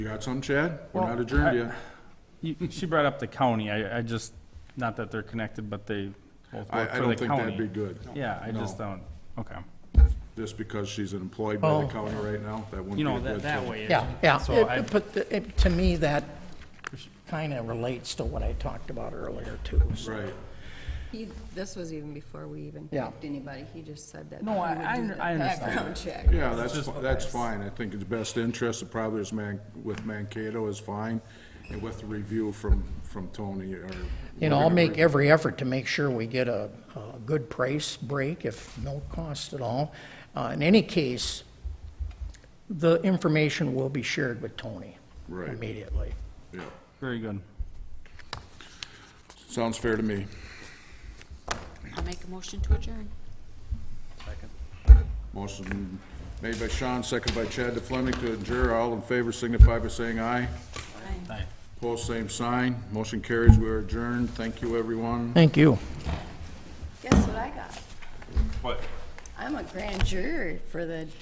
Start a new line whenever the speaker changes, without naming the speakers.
You got some, Chad? We're not
Well,
adjourned
I-
yet.
You- She brought up the county, I, I just, not that they're connected, but they both work
I, I
for
don't
the
think that'd be
county.
good,
Yeah, I just
No.
don't, okay.
just because she's employed by the
Oh.
county right now, that wouldn't be
You know,
a
that,
good
that
thing.
way.
Yeah, yeah,
So
It-
I-
but the- it- to me, that kind of relates to what I talked about earlier, too. so-
Right.
He, this was even before we even
Yeah.
picked anybody, he just said that.
No,
he
I-
would
I
do
under-
the
I understand
Background check.
Yeah, that's, fi- that's fine. I think it's best interest, of probably is Man, with Mankato is fine, and with the review from, from Tony or.
You know, I'll make every effort to make sure we get a, a good price break, if no cost at all. Uh, in any case, the information will be shared with Tony
Right.
immediately.
Yeah,
Very good.
sounds fair to me.
I'll make a motion to adjourn.
Motion made by Sean, second by Chad DeFlemming to adjourn. All in favor signify by saying aye.
Aye.
Opposed, same sign. Motion carries. We are adjourned. Thank you, everyone.
Thank you.
Guess what I got?
What?
I'm a grand juror for the